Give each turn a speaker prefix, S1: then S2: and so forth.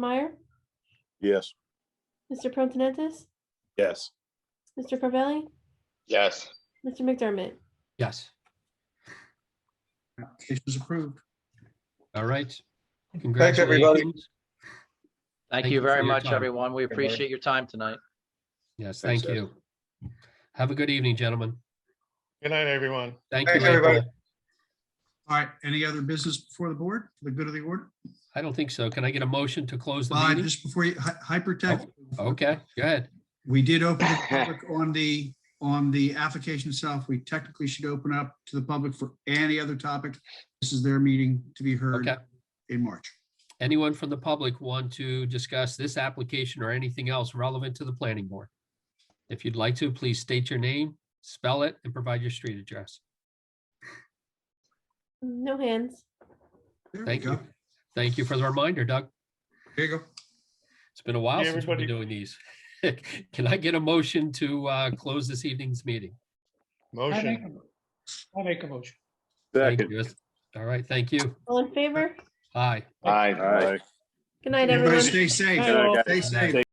S1: Meyer,
S2: Yes.
S1: Mr. Protonentis,
S2: Yes.
S1: Mr. Carvelli,
S3: Yes.
S1: Mr. McDermott.
S4: Yes.
S5: Application is approved.
S4: All right.
S6: Thanks, everybody.
S4: Congratulations.
S7: Thank
S4: Thank you
S7: you
S4: for
S7: very
S4: your
S7: much,
S4: time.
S7: everyone. We
S6: Everybody.
S7: appreciate your time tonight.
S4: Yes,
S2: Thanks,
S4: thank
S2: Ed.
S4: you. Have a good evening, gentlemen.
S3: Good night, everyone.
S4: Thank you.
S6: Thanks, everybody.
S4: April.
S5: All right, any other business before the board, for the good of the order?
S4: I don't think so. Can I get a motion to close the
S5: Well, I-
S4: meeting?
S5: just before you, hy- hypertext.
S4: Okay, go ahead.
S5: We did open the public on the, on the application itself. We technically should open up to the public for any other topic. This is their meeting to be heard
S4: Okay.
S5: in March.
S4: Anyone from the public want to discuss this application or anything else relevant to the planning board? If you'd like to, please state your name, spell it, and provide your street address.
S1: No hands.
S5: There we
S4: Thank
S5: go.
S4: you. Thank you for the reminder, Doug.
S5: There you go.
S4: It's been a while
S3: Yeah,
S4: since we've been doing these. Can I get a motion to uh, close this evening's meeting?
S8: I make
S3: Motion.
S8: a mo- I make a motion.
S4: Thank
S2: Second.
S4: you. All right, thank you.
S1: All in favor?
S4: Aye.
S3: Aye.
S2: Aye.
S1: Good night,
S5: Everybody
S1: everyone.
S5: stay safe.
S1: Bye.
S5: Stay safe.